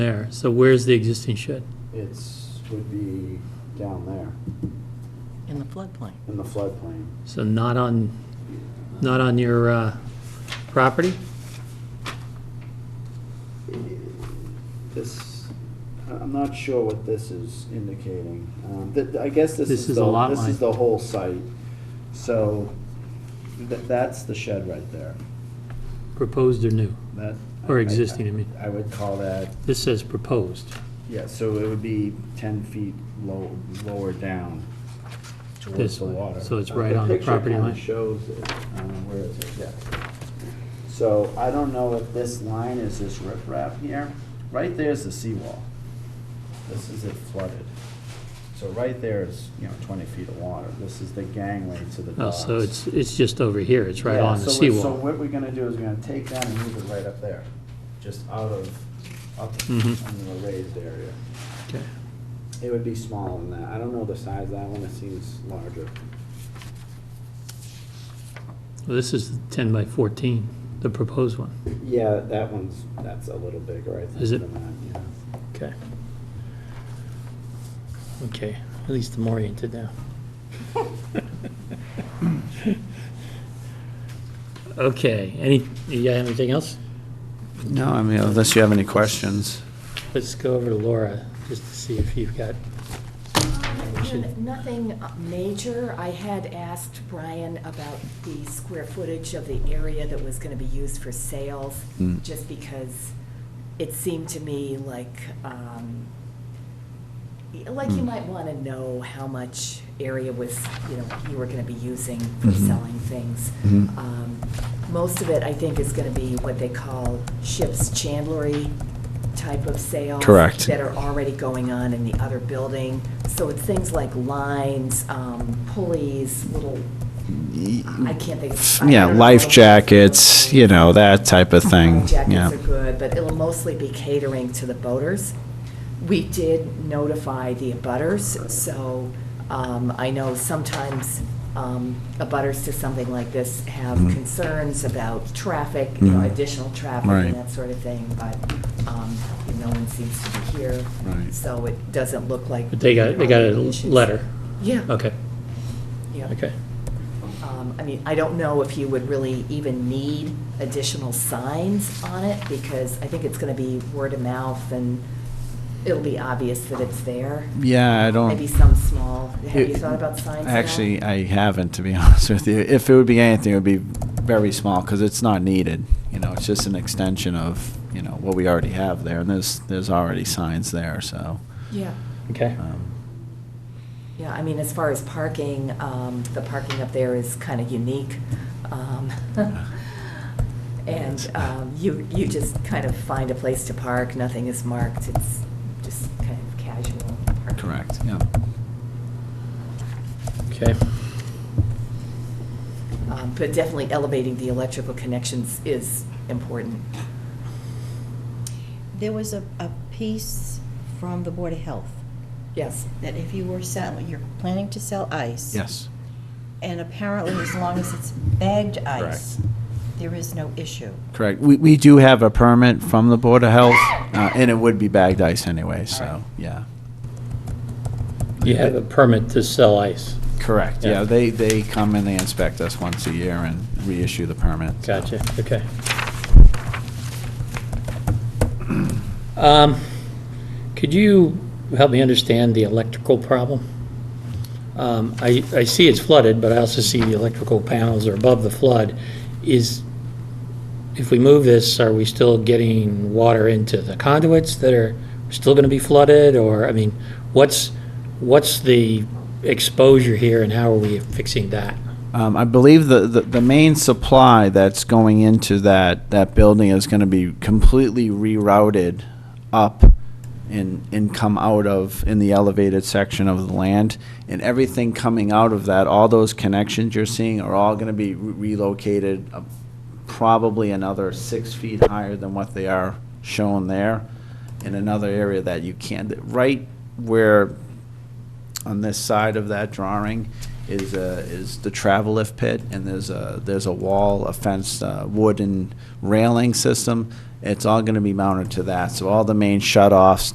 there. So where's the existing shed? It's, would be down there, in the floodplain. in the floodplain. So not on, not on your uh, property? This, I- I'm not sure what this is indicating. Um, th- I guess this This is is a the, lot this line. is the whole site. So th- that's the shed right there. Proposed or new? That. Or I- I- existing, I mean. I would call that, This says proposed. yeah, so it would be 10 feet low, lower down towards This the way. water. So it's right on the property line. picture kind of shows it, um, where it's, yeah. So I don't know if this line is this riprap here. Right there's the seawall. This is it flooded. So right there is, you know, 20 feet of water. This is the gangway to the Oh, docks. so it's, it's just over here, it's right Yeah, on so the what- So seawall. what we're gonna do is we're gonna take that and move it right up there, just out of, up Mhm. under the raised area. Okay. It would be smaller than that. I don't know the size of that one, it seems larger. Well, This is 10 by 14, the proposed one. Yeah, that one's, that's a little bigger, I think, Is it? than that, yeah. Okay. Okay, at least I'm oriented now. Okay, any, you got anything else? No, I mean, unless you have any questions. Let's go over to Laura, just to see if you've got, should- Nothing major. I had asked Brian about the square footage of the area that was going to be used for sales, Hmm. just because it seemed to me like, um, y- like you Hmm. might want to know how much area was, you know, you were going to be using for Mhm. selling things. Mhm. Um, Most of it, I think, is going to be what they call ship's chandlery type of sale Correct. That are already going on in the other building. So it's things like lines, um, pulleys, little, I can't think. of- I Yeah, don't know. life jackets, you know, Oh, that type of thing, Life Jackets yeah. are good, but it'll mostly be catering to the boaters. We did notify the abutters, so um, I know sometimes um, abutters to something like this have Mhm. concerns about traffic, you know, Mhm. additional traffic Right. and that sort of thing, but um, no one seems to be here. Right. So it doesn't look like. but they got, they got a issues. letter. Yeah. Okay, yeah. okay. Um, I mean, I don't know if you would really even need additional signs on it, because I think it's gonna be word of mouth, and it'll be obvious that it's there. Yeah, I Maybe don't, some small, have you It- thought about signs at all? actually, I haven't, to be honest with you. If it would be anything, it would be very small, because it's not needed. You know, it's just an extension of, you know, what we already have there, and there's, there's already signs there, so. Yeah, Okay. um, yeah, I mean, as far as parking, um, the parking up there is kinda unique. Um, And, um, you, you just kind of find a place to park, nothing is marked, it's just kind of casual parking. Correct, yeah. Okay. Um, But definitely elevating the electrical connections is important. There was a, a piece from the Board of Health Yes. that if you were selling, you're planning to sell ice. Yes, And apparently, as long as it's bagged ice, there is no issue. correct. We, we do have a permit from the Board of Health, uh, and it would be bagged ice anyway, so, yeah. You have a permit to sell ice. Correct, Yeah. yeah, they, they come and they inspect us once a year and reissue the permit. so. Gotcha, okay. Um, Could you help me understand the electrical problem? Um, I, I see it's flooded, but I also see the electrical panels are above the flood. Is, if we move this, are we still getting water into the conduits that are still going to be flooded? Or, I mean, what's, what's the exposure here and how are we fixing that? Um, I believe the, the, the main supply that's going into that, that building is gonna be completely rerouted up and, and come out of, in the elevated section of the land. And everything coming out of that, all those connections you're seeing are all gonna be re- relocated uh, probably another six feet higher than what they are shown there. In another area that you can't, right where on this side of that drawing is, uh, is the travel lift pit, and there's a, there's a wall, a fenced uh, wooden railing system. It's all gonna be mounted to that, so all the main shut-offs